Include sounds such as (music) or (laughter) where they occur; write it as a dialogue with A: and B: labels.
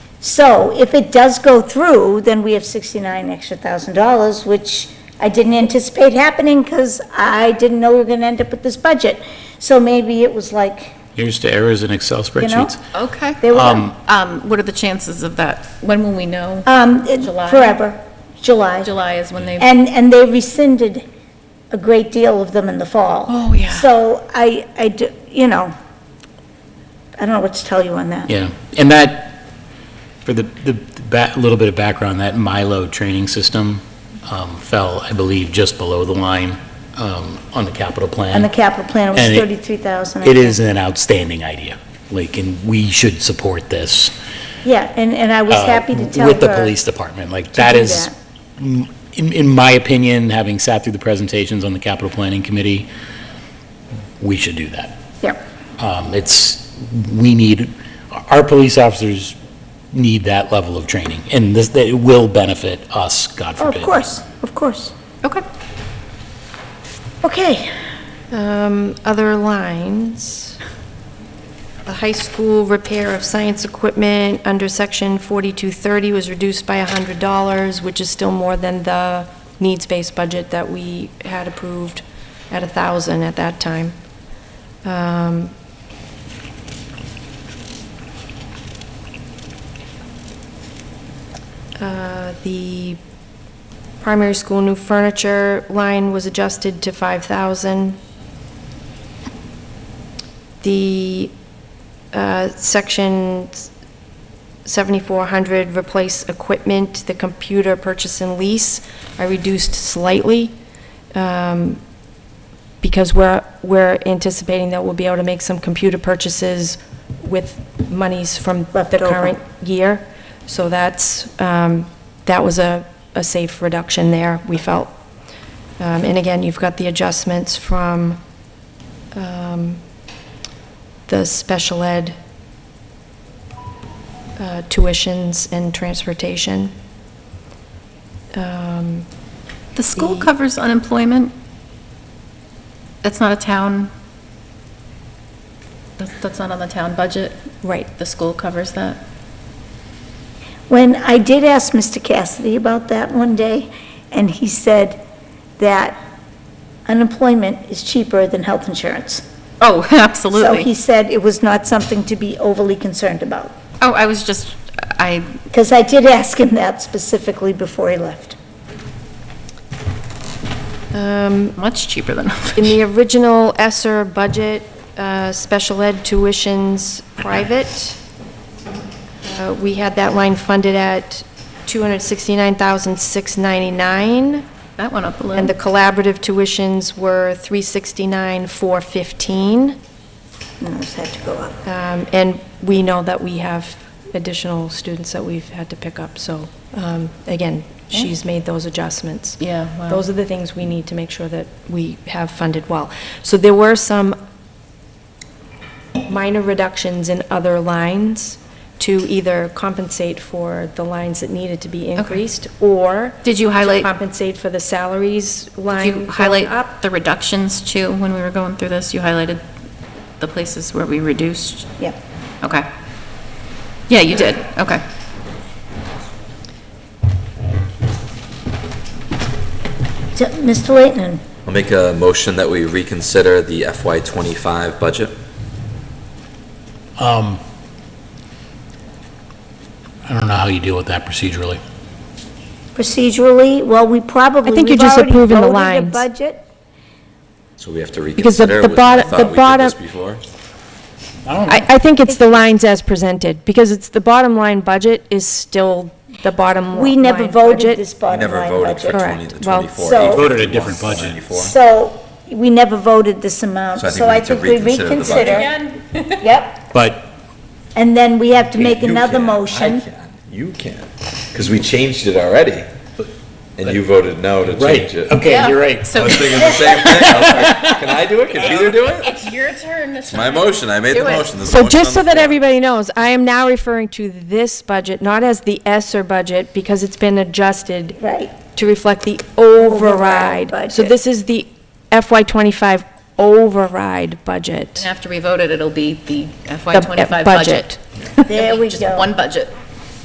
A: So if it does go through, then we have 69 extra thousand dollars, which I didn't anticipate happening because I didn't know we were going to end up with this budget. So maybe it was like,
B: You're used to errors in Excel spreadsheets.
C: Okay.
A: they were,
B: Um,
C: Um, what are the chances of that? When will we know?
A: um, it-
C: July?
A: forever, July.
C: July is when they,
A: And, and they rescinded a great deal of them in the fall.
C: Oh, yeah.
A: So I, I, d- you know, I don't know what to tell you on that.
B: Yeah, and that, for the, the, ba little bit of background, that Milo training system, um, fell, I believe, just below the line, um, on the capital plan.
A: And the capital plan was
B: And it-
A: 33,000. I
B: It
A: think.
B: is an outstanding idea, like, and we should support this.
A: Yeah, and, and I was
B: uh,
A: happy to tell her.
B: With the police department, like, that
A: do
B: is,
A: that.
B: m- in, in my opinion, having sat through the presentations on the capital planning committee, we should do that.
A: Yep.
B: Um, it's, we need, our police officers need that level of training, and this, that it will benefit us, God
A: Oh, of
B: forbid.
A: course, of course.
C: okay.
A: Okay,
D: Um, other lines. The high school repair of science equipment under section 4230 was reduced by $100, which is still more than the needs-based budget that we had approved at 1,000 at that time. Um, uh, The primary school new furniture line was adjusted to 5,000. The uh, section 7400, replace equipment, the computer purchase and lease, I reduced slightly um, because we're, we're anticipating that we'll be able to make some computer purchases with monies from
A: Left
D: the
A: over.
D: current year. So that's, um, that was a, a safe reduction there, we felt. Um, And again, you've got the adjustments from um, the special ed uh, tuitions and transportation. Um,
C: The school
D: The-
C: covers unemployment? That's not a town, that's, that's not on the town budget?
D: Right.
C: The school covers that?
A: when I did ask Mr. Cassidy about that one day, and he said that unemployment is cheaper than health insurance.
D: (laughs)
A: So
C: Oh,
A: he
C: absolutely.
A: said it was not something to be overly concerned about,
C: Oh, I was just, I,
A: because I did ask him that specifically before he left.
D: um,
C: much cheaper than.
D: (laughs) In the original ESER budget, uh, special ed tuitions private, uh, we had that line funded at 269699
C: (laughs) That went up a little.
D: And the collaborative tuitions were 369,415.
A: And those had to go up.
D: Um, And we know that we have additional students that we've had to pick up, so, um, again, she's made those adjustments.
C: Yeah, wow.
D: Those are the things we need to make sure that we have funded well. So there were some minor reductions in other lines to either compensate for the lines that needed to be increased, or...
C: Did you highlight-
D: To compensate for the salaries line
C: Did you
D: going up.
C: highlight the reductions too, when we were going through this? You highlighted the places where we reduced?
A: Yep.
C: Okay. Yeah, you did, okay.
A: So, Mr. Leighton,
E: I'll make a motion that we reconsider the FY twenty-five budget.
B: Um, I don't know how you deal with that procedurally.
A: procedurally, well, we probably,
D: I think you're
A: we've
D: just
A: already
D: approving the
A: voted a
D: lines.
A: budget.
E: So we have to
D: Because the-
E: reconsider,
D: the
E: which I
D: bottom- the
E: thought we did this
D: bottom-
E: before.
D: I, I think it's the lines as presented, because it's, the bottom line budget is still the bottom line.
A: We never voted
D: budget.
A: this
E: We
A: bottom
E: never
A: line budget.
E: voted for twenty,
D: Correct.
E: the
D: Well,
E: twenty-four.
A: So-
E: eight,
B: Voted a
E: 51,
B: different budget.
E: 94.
A: So we never voted this amount,
E: So I think
A: so
E: we
A: I
E: need to
A: think we
E: reconsider the budget.
A: reconsider. Yep,
B: But
A: and then we have to make
E: You
A: another
E: can, I
A: motion.
E: can, You can, because we changed it already, and you voted no to
B: Right,
E: change it.
B: okay, you're right.
E: I
C: So
E: was thinking the same thing. I was like, Can I do it? Can Peter do it?
C: it's your turn this
E: It's my motion. I made the motion. There's a
D: So
E: motion
D: just
E: on
D: so
E: the
D: that
E: floor.
D: everybody knows, I am now referring to this budget, not as the ESER budget, because it's been adjusted
A: Right,
E: (laughs)
D: to reflect the
A: Override
D: override. So
A: budget.
D: this is the FY twenty-five override budget.
C: After we vote it, it'll be the FY
D: The
C: twenty-five
D: budget.
C: budget.
A: there we
C: Just one
A: go.
C: budget.